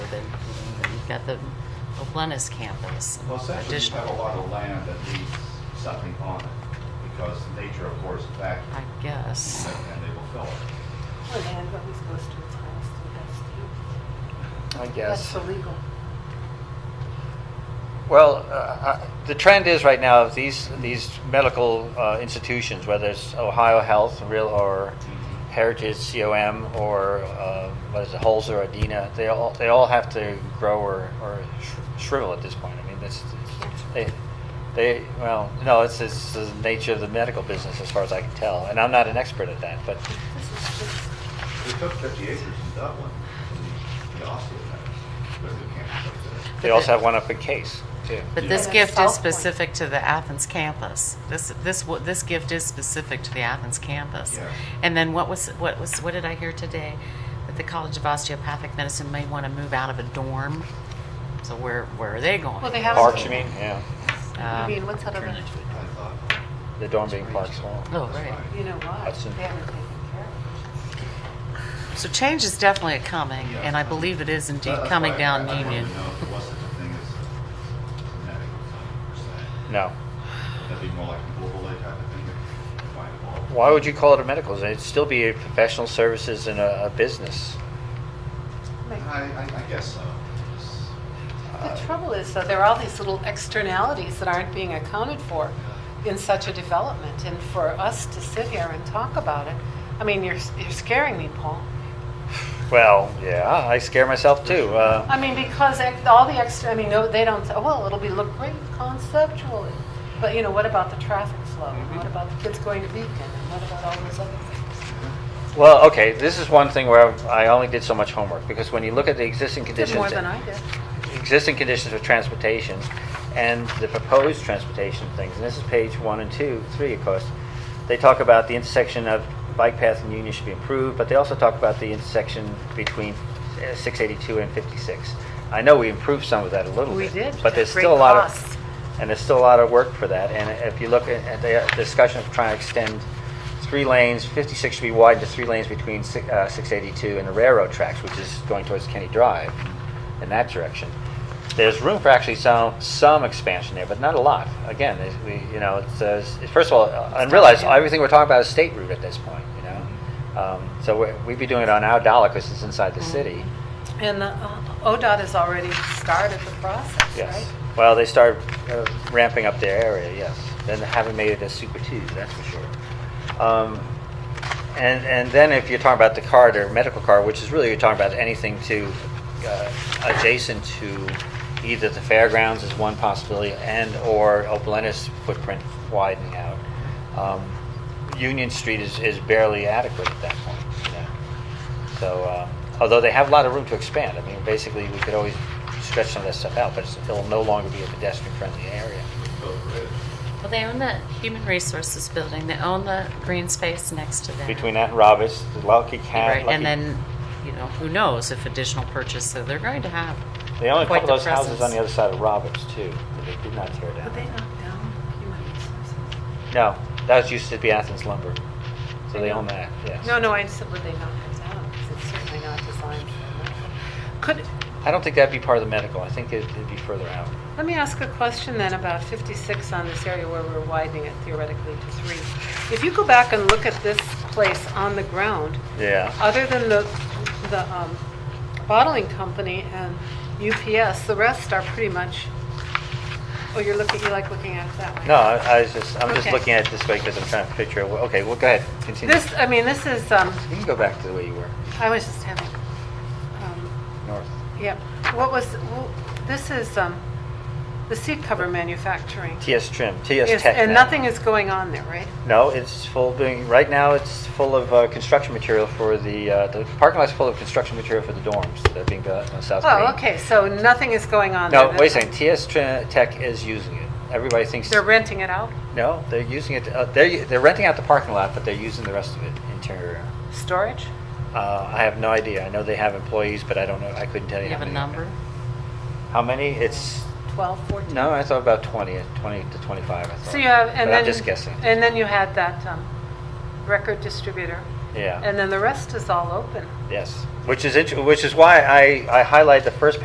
got the Oblenis campus. Well, essentially, you additional- have a lot of land that needs something on it, because nature, of course, is active, I guess. and they will fill it. Well, and what we supposed to, it's honest, that's, the- I that's guess. illegal. Well, uh, uh, the trend is right now, these, these medical uh, institutions, whether it's Ohio Health, Real, or Heritage COM, or uh, what is it, Holzer, or Adina, they all, they all have to grow or, or sh- shrivel at this point. I mean, that's, they, they, well, no, it's, it's the nature of the medical business as far as I can tell. And I'm not an expert at that, but This is just, They took 50 acres in Dublin, the- the osteopaths, there's a campus up there. they also have one up in Case, too. But Yeah. this And gift South is Point. specific to the Athens campus. This, this, wa- this gift is specific to the Athens campus. Yeah. And then what was, what was, what did I hear today? That the College of Osteopathic Medicine may want to move out of a dorm. So where, where are they going? well, they Parks, you haven't, mean? Yeah. I mean, Um, what's that other, I thought, The dorm being Parks Hall. Oh, that's right. fine. you know why, Hudson. they haven't taken care of So change is definitely coming, Yeah. and I believe it is indeed That's coming why I- down I wanted to Union. know if it was such a thing as genetic or something per se. No. Would that be more like a global type of thing? that you find all- Why would you call it a medical? It'd still be a professional services and a, a business. it. I, Like, I I guess so. It's- Uh, The trouble is, though, there are all these little externalities that aren't being accounted for in such a development, and for us to sit here and talk about it, I mean, you're, you're scaring me, Paul. Well, yeah, I scare myself too. Uh, I mean, because ex- all the extra, I mean, no, they don't say, well, it'll be look great conceptually, but you know, what about the traffic flow? Mm-hmm. And What about the kids going to Beacon, and what about all those other things? well, okay, this is one thing where I only did so much homework because when you look at the existing You did conditions, more than I did. existing conditions of transportation and the proposed transportation things, and this is page one and two, three, of course, they talk about the intersection of bike path and Union should be improved, but they also talk about the intersection between uh, 682 and 56. I know we improved some of that a little We bit. did, but But at there's great still a lot cost. of, and there's still a lot of work for that. And if you look at at the discussion of trying to extend three lanes, 56 should be widened to three lanes between si- uh, 682 and the railroad tracks, which is going towards Kenny Drive in that direction. There's room for actually some, some expansion there, but not a lot. Again, it- we, you know, it's, uh, s- first of all, uh, and realize everything we're talking about is state route at this point, you know? Um, So we- we'd be doing it on our dollar because it's inside the city. And uh, ODOT has already started the process, Yes. right? Well, they start uh, ramping up their area, yes. Then they haven't made it a super two, that's for sure. Um, and, and then if you're talking about the card or medical card, which is really you're talking about anything to uh, adjacent to either the fairgrounds is one possibility and or Oblenis footprint widening out. Um, Union Street is, is barely adequate at that point. You know? So, uh, although they have a lot of room to expand, I mean, basically, we could always stretch some of that stuff out, but it's- it'll no longer be a pedestrian-friendly area. Built Uh, a bridge. Well, they own the Human Resources Building, they own the green space next to that. Between that and Roberts, the Lucky Cat, Right, and Lucky... then, you know, who knows if additional purchase, so they're going to have. They own a quite couple of those the houses on presence. the other side of Roberts, too, that they did not tear Would they down. knock down human resources? No, that used to be Athens Lumber, so They they own don't- that, yes. No, no, I said, would they knock it down? 'Cause It's certainly not designed for that. Could, I don't think that'd be part of the medical, I think it'd it'd be further out. let me ask a question then about 56 on this area where we're widening it theoretically to three. If you go back and look at this place on the ground, Yeah. other than the, the um, bottling company and UPS, the rest are pretty much, oh, you're looking, you like looking at it that way? No, I I was just, I'm just Okay. looking at it this way because I'm trying to picture, well, okay, well, go ahead, continue. This, I mean, this is, um, You can go back to the way you were, I was just having, um, north. Yep. What was, wh- this is um, the seat cover manufacturing. TS Trim, Yes, TS Tech. And now. nothing is going on there, right? No, it's full being, right now it's full of uh, construction material for the, uh, the parking lot's full of construction material for the dorms that are being built on South Main. Oh, okay, so nothing is going on there. No, wait a second, TS Trin- Tech is using it. Everybody thinks, They're renting it out? no, they're using it, uh, they're, they're renting out the parking lot, but they're using the rest of it interior. Storage? Uh, I have no idea. I know they have employees, but I don't know, I couldn't tell You you how have a many. number? How many? It's, 12, 14? no, I thought about 20, 20 to 25, I thought. So you have, and then... But I'm just guessing, And then you had that um, record distributor, yeah. and then the rest is all open. Yes, which is, int- which is why I, I highlight the first